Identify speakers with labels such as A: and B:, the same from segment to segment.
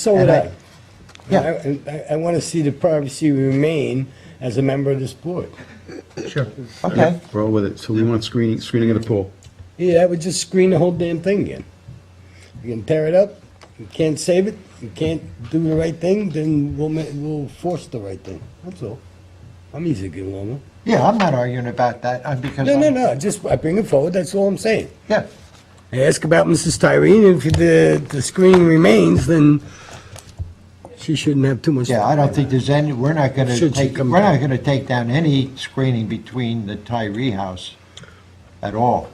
A: So would
B: And I-
A: I.
B: Yeah.
A: And I, I want to see the privacy remain as a member of this board.
C: Sure.
B: Okay.
C: We're all with it. So we want screening, screening of the pool.
A: Yeah, that would just screen the whole damn thing again. You can tear it up, you can't save it, you can't do the right thing, then we'll, ma- we'll force the right thing. That's all. I'm easy to get along with.
B: Yeah, I'm not arguing about that, I'm because.
A: No, no,
B: I'm-
A: no, just, I bring it forward, that's all I'm saying.
B: Yeah,
A: I ask about Mrs. Tyreen, if the, the screen remains, then she shouldn't have too much.
B: yeah, I don't think there's any, we're not gonna
A: Should she
B: take, we're
A: come
B: not
A: down?
B: gonna take down any screening between the Tyree house at all.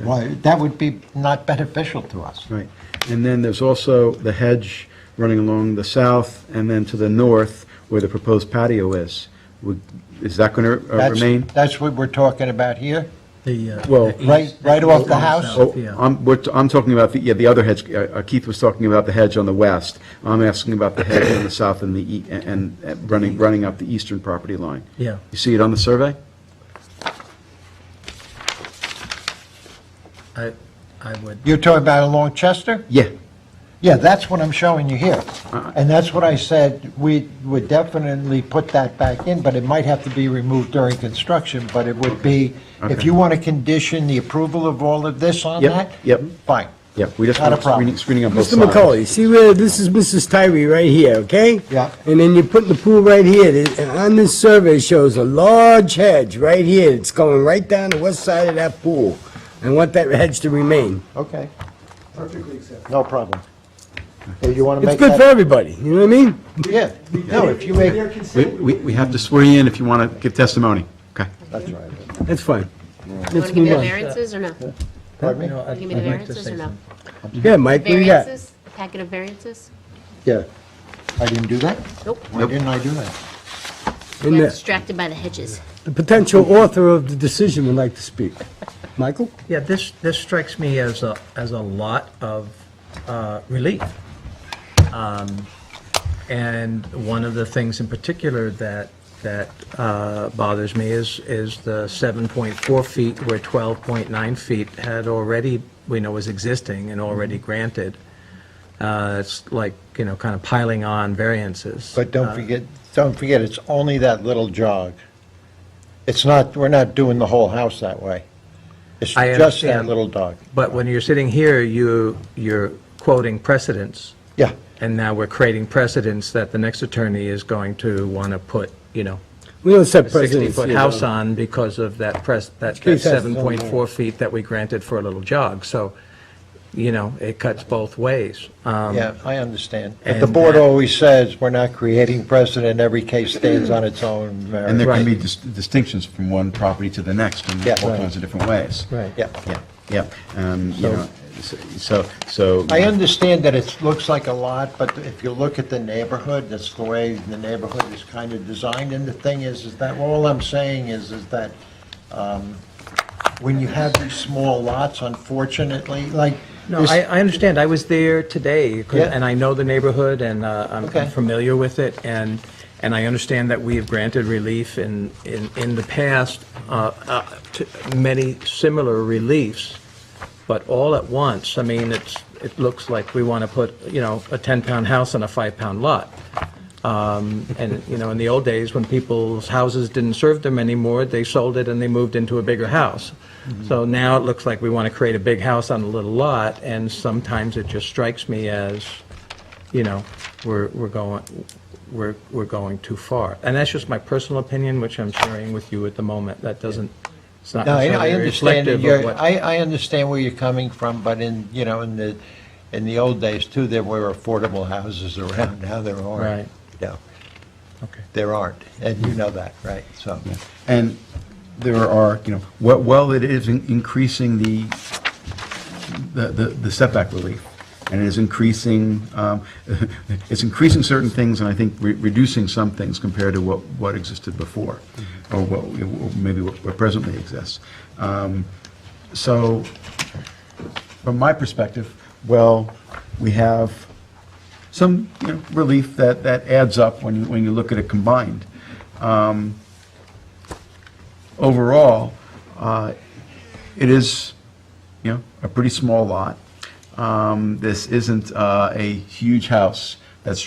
B: Why, that would be not beneficial to us.
C: Right. And then there's also the hedge running along the south and then to the north where the proposed patio is. Would- Is that going to
B: That's-
C: remain?
B: That's what we're talking about here?
D: The, uh,
C: Well-
D: the east-
B: Right- right off the
D: east
B: house?
D: south,
C: Oh,
D: yeah.
C: I'm, we're- I'm talking about, the yeah, the other hedge, uh, Keith was talking about the hedge on the west. I'm asking about the hedge on the south and the, ea- and and running, running up the eastern property line.
D: Yeah.
C: You see it on the survey?
D: I, I would,
B: You're talking about along Chester?
C: Yeah.
B: Yeah, that's what I'm showing you here. And that's what I said, we would definitely put that back in, but it might have to be removed during construction, but it would be, if
C: Okay.
B: you want to condition the approval of all of this on
C: Yep,
B: that?
C: yep.
B: Fine.
C: Yeah, we just
B: Not a
C: want screening,
B: problem.
C: screening on both
A: Mr.
C: sides.
A: McCauley, see where, this is Mrs. Tyree right here, okay?
B: Yeah.
A: And then you put the pool right here, There- and on this survey it shows a large hedge right here, it's going right down the west side of that pool. I want that hedge to remain.
B: Okay. No problem. So you want to
A: It's
B: make
A: good for
B: that?
A: everybody, you know what I mean?
B: Yeah, no, if you make,
C: We, we we have to swear you in if you want to give testimony. Okay.
B: that's right.
A: That's fine.
E: You
A: Let's
E: Want to give
A: move
E: their
A: on.
E: variances or no?
B: Pardon
D: No,
B: me?
D: I'd
E: Give me the
D: I'd like to
E: variances
D: say
E: or no?
D: something.
A: Yeah, Mike, what do you got?
E: Variances, A packet of variances?
B: Yeah. I didn't do that?
E: Nope.
B: Why didn't I do that?
E: You
A: And
E: got
A: the-
E: distracted by the hedges.
A: The potential author of the decision would like to speak. Michael?
D: Yeah, this, this strikes me as a, as a lot of uh, relief. Um, And one of the things in particular that, that uh, bothers me is, is the 7.4 feet where 12.9 feet had already, we know was existing and already granted. Uh, It's like, you know, kind of piling on variances.
B: But don't forget, don't forget, it's only that little jog. It's not, we're not doing the whole house that way. It's
D: I
B: just that
D: understand.
B: little dog.
D: But when you're sitting here, you, you're quoting precedents.
B: Yeah,
D: And now we're creating precedents that the next attorney is going to want to put, you know,
A: We don't
D: a
A: set precedents.
D: 60-foot
A: here,
D: house
A: though.
D: on because of that press, that that
A: Which case has its own merit.
D: 7.4 feet that we granted for a little jog. So, you know, it cuts both ways. Um,
B: yeah, I understand. But the
D: And
B: board
D: that-
B: always says, we're not creating precedent, every case stands on its own
C: And there
B: merit.
C: can
D: Right.
C: be dis- distinctions from one property to the next in
B: Yeah.
C: all kinds of different ways.
D: Right.
B: Yeah.
C: Yeah, yeah. Um, you know, s- so, so.
B: I understand that it looks like a lot, but if you look at the neighborhood, that's the way the neighborhood is kind of designed. And the thing is, is that, all I'm saying is, is that um, when you have these small lots, unfortunately, like.
D: No,
B: this-
D: I, I understand. I was there today, 'cause-
B: Yeah.
D: and I know the neighborhood, and uh, I'm
B: Okay.
D: I'm familiar with it, and, and I understand that we have granted relief in, in, in the past, uh, uh, to many similar reliefs, but all at once, I mean, it's, it looks like we want to put, you know, a 10-pound house on a 5-pound lot. Um, And, you know, in the old days, when people's houses didn't serve them anymore, they sold it and they moved into a bigger house.
B: Mm-hmm.
D: So now it looks like we want to create a big house on a little lot, and sometimes it just strikes me as, you know, we're, we're going, we're, we're going too far. And that's just my personal opinion, which I'm sharing with you at the moment. That doesn't, it's not
B: No, I I
D: necessarily
B: understand, that
D: reflective of
B: you're-
D: what.
B: I, I understand where you're coming from, but in, you know, in the, in the old days too, there were affordable houses around, now there aren't.
D: Right.
B: No,
D: Okay.
B: there aren't, and you know that, right, so.
C: And there are, you know, wh- well, it is in- increasing the, the- the the setback relief, and it is increasing, um, it's increasing certain things, and I think re- reducing some things compared to what, what existed before, or what, or maybe what what presently exists. Um, So, from my perspective, well, we have some, you know, relief that, that adds up when you, when you look at it combined overall, uh, it is, you know, a pretty small lot. Um, This isn't uh, a huge house